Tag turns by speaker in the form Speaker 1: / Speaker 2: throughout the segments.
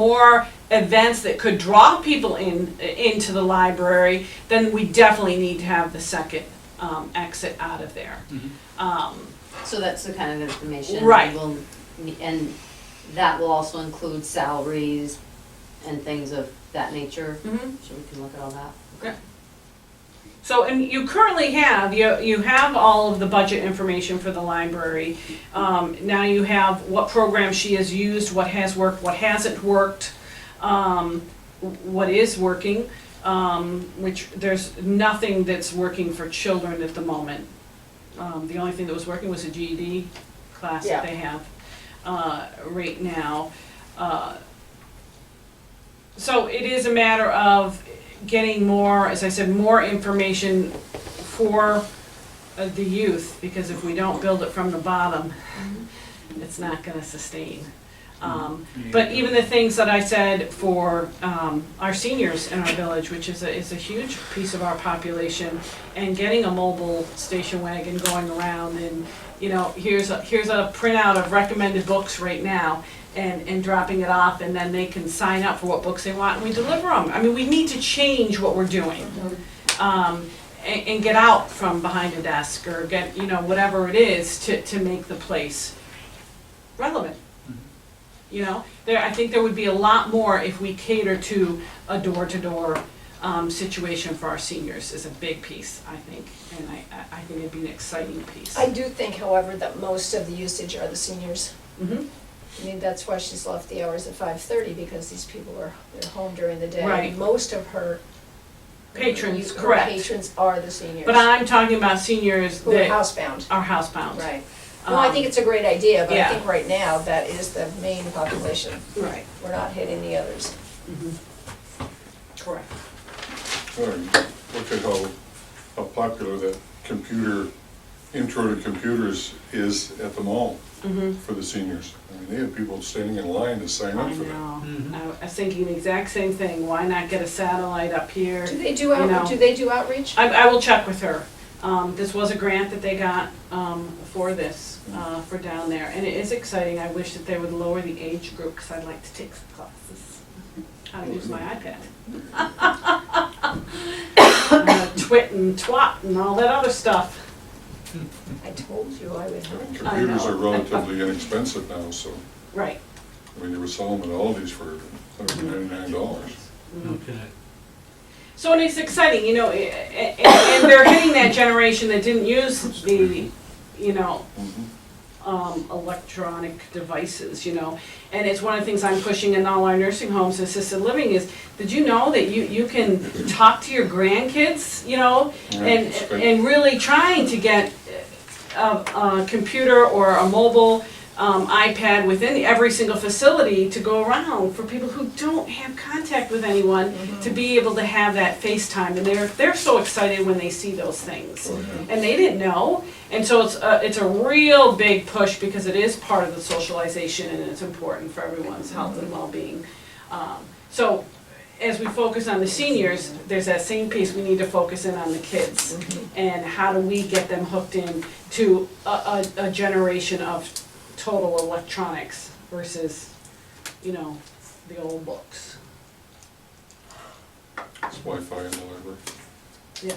Speaker 1: more events that could draw people in, into the library, then we definitely need to have the second um, exit out of there. Um,
Speaker 2: So that's the kind of information.
Speaker 1: Right.
Speaker 2: we'll- And that will also include salaries and things of that nature, so we can look at all that.
Speaker 1: So, and you currently have, you, you have all of the budget information for the library. Um, now you have what program she has used, what has worked, what hasn't worked, um, what is working, um, which, there's nothing that's working for children at the moment. Um, the only thing that was working was a GED class that
Speaker 2: Yeah.
Speaker 1: they have, uh, right now. Uh, So it is a matter of getting more, as I said, more information for uh, the youth, because if we don't build it from the bottom, it's not gonna sustain. Um, But even the things that I said for um, our seniors in our village, which is a, is a huge piece of our population, and getting a mobile station wagon going around and, you know, here's a, here's a printout of recommended books right now, and, and dropping it off, and then they can sign up for what books they want, and we deliver them. I mean, we need to change what we're doing um, and, and get out from behind a desk or get, you know, whatever it is to, to make the place relevant. You know, there, I think there would be a lot more if we cater to a door-to-door, um, situation for our seniors is a big piece, I think. And I, I, I think it'd be an exciting piece.
Speaker 3: I do think, however, that most of the usage are the seniors.
Speaker 1: Mhm.
Speaker 3: I mean, that's why she's left the hours at five thirty, because these people are, they're home during the day.
Speaker 1: Right.
Speaker 3: Most of her.
Speaker 1: Patrons,
Speaker 3: her
Speaker 1: correct.
Speaker 3: Patrons are the seniors.
Speaker 1: But I'm talking about seniors
Speaker 3: Who are
Speaker 1: that
Speaker 3: housebound,
Speaker 1: are housebound.
Speaker 3: right. No, I think it's a great idea, but
Speaker 1: Um,
Speaker 3: I
Speaker 1: yeah.
Speaker 3: think right now, that is the main population.
Speaker 1: Right,
Speaker 3: We're not hitting the others.
Speaker 1: Mm-hmm. correct.
Speaker 4: All right, Look at how, how popular that computer, intro to computers is at the mall
Speaker 1: Mhm.
Speaker 4: for the seniors. I mean, they have people standing in line to sign up
Speaker 1: I
Speaker 4: for that.
Speaker 1: know. I was thinking the exact same thing. Why not get a satellite up here?
Speaker 3: Do they do
Speaker 1: know.
Speaker 3: out, do they do outreach?
Speaker 1: I, I will check with her. Um, this was a grant that they got, um, for this, uh, for down there, and it is exciting. I wish that they would lower the age group, cause I'd like to take some classes. How to use my iPad. Uh, Twit and twat and all that other stuff.
Speaker 3: I told you I would.
Speaker 4: I mean, Computers are relatively inexpensive now, so,
Speaker 1: Right.
Speaker 4: I mean, they were selling them at Aldi's for $199.
Speaker 5: Okay.
Speaker 1: So and it's exciting, you know, a- a- and, and they're hitting that generation that didn't use the, you know,
Speaker 4: Mhm.
Speaker 1: um, electronic devices, you know. And it's one of the things I'm pushing in all our nursing homes, assisted living, is, did you know that you, you can talk to your grandkids, you know?
Speaker 4: Yeah,
Speaker 1: And,
Speaker 4: it's great.
Speaker 1: and really trying to get a, a computer or a mobile um, iPad within every single facility to go around for people who don't have contact with anyone to be able to have that FaceTime. And they're, they're so excited when they see those things
Speaker 4: Oh, yeah.
Speaker 1: and they didn't know. And so it's a, it's a real big push because it is part of the socialization and it's important for everyone's health and well-being. Um, So as we focus on the seniors, there's that same piece, we need to focus in on the kids. And how do we get them hooked in to a, a, a generation of total electronics versus, you know, the old books.
Speaker 4: It's Wi-Fi in the library.
Speaker 1: Yeah.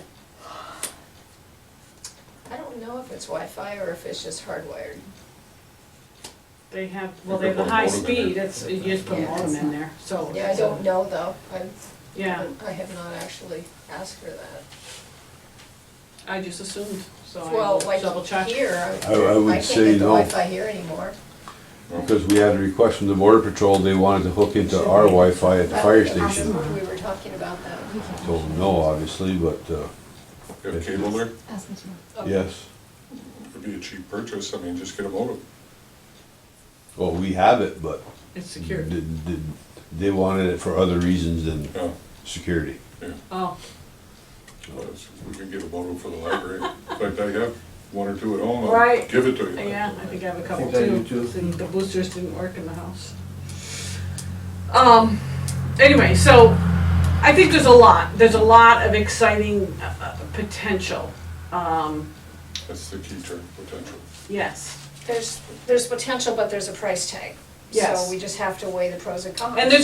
Speaker 3: I don't know if it's Wi-Fi or if it's just hardwired.
Speaker 1: They have, well,
Speaker 4: You
Speaker 1: they have
Speaker 4: could
Speaker 1: the
Speaker 4: put a
Speaker 1: high
Speaker 4: modem in there.
Speaker 1: speed, it's, you just put a
Speaker 2: Yeah, it's
Speaker 1: modem in
Speaker 2: not-
Speaker 1: there, Oh, so.
Speaker 3: Yeah, I don't know though. I
Speaker 1: Yeah.
Speaker 3: I have not actually asked her that.
Speaker 1: I just assumed, so I
Speaker 3: Well,
Speaker 1: will
Speaker 3: like
Speaker 1: double check.
Speaker 3: here, I
Speaker 6: I- I would
Speaker 3: I can't
Speaker 6: say
Speaker 3: get the
Speaker 6: no.
Speaker 3: Wi-Fi here anymore.
Speaker 6: Because we had a request from the border patrol, they wanted to hook into our Wi-Fi at the fire
Speaker 3: I don't
Speaker 6: station.
Speaker 3: remember if We were talking about that.
Speaker 6: Told them no, obviously, but, uh,
Speaker 4: You have cable there,
Speaker 3: Oh,
Speaker 6: yes.
Speaker 4: it'd be a cheap purchase, I mean, just get a modem.
Speaker 6: Well, we have it, but
Speaker 1: It's
Speaker 6: did,
Speaker 1: secured.
Speaker 6: did, they wanted it for other reasons than
Speaker 4: Yeah,
Speaker 6: security.
Speaker 1: Oh,
Speaker 4: well, it's- we can get a modem for the library. In fact, I have one or two at home, I'll
Speaker 1: Right.
Speaker 4: give it to you.
Speaker 1: yeah, I think I have a couple
Speaker 5: think I do
Speaker 1: too.
Speaker 5: too.
Speaker 1: See, The boosters didn't work in the house. Um, anyway, so I think there's a lot, there's a lot of exciting uh, uh, potential. Um,
Speaker 4: That's the key term, potential.
Speaker 1: yes.
Speaker 3: There's, there's potential, but there's a price tag.
Speaker 1: Yes.
Speaker 3: So we just have to weigh the pros and cons.
Speaker 1: And there's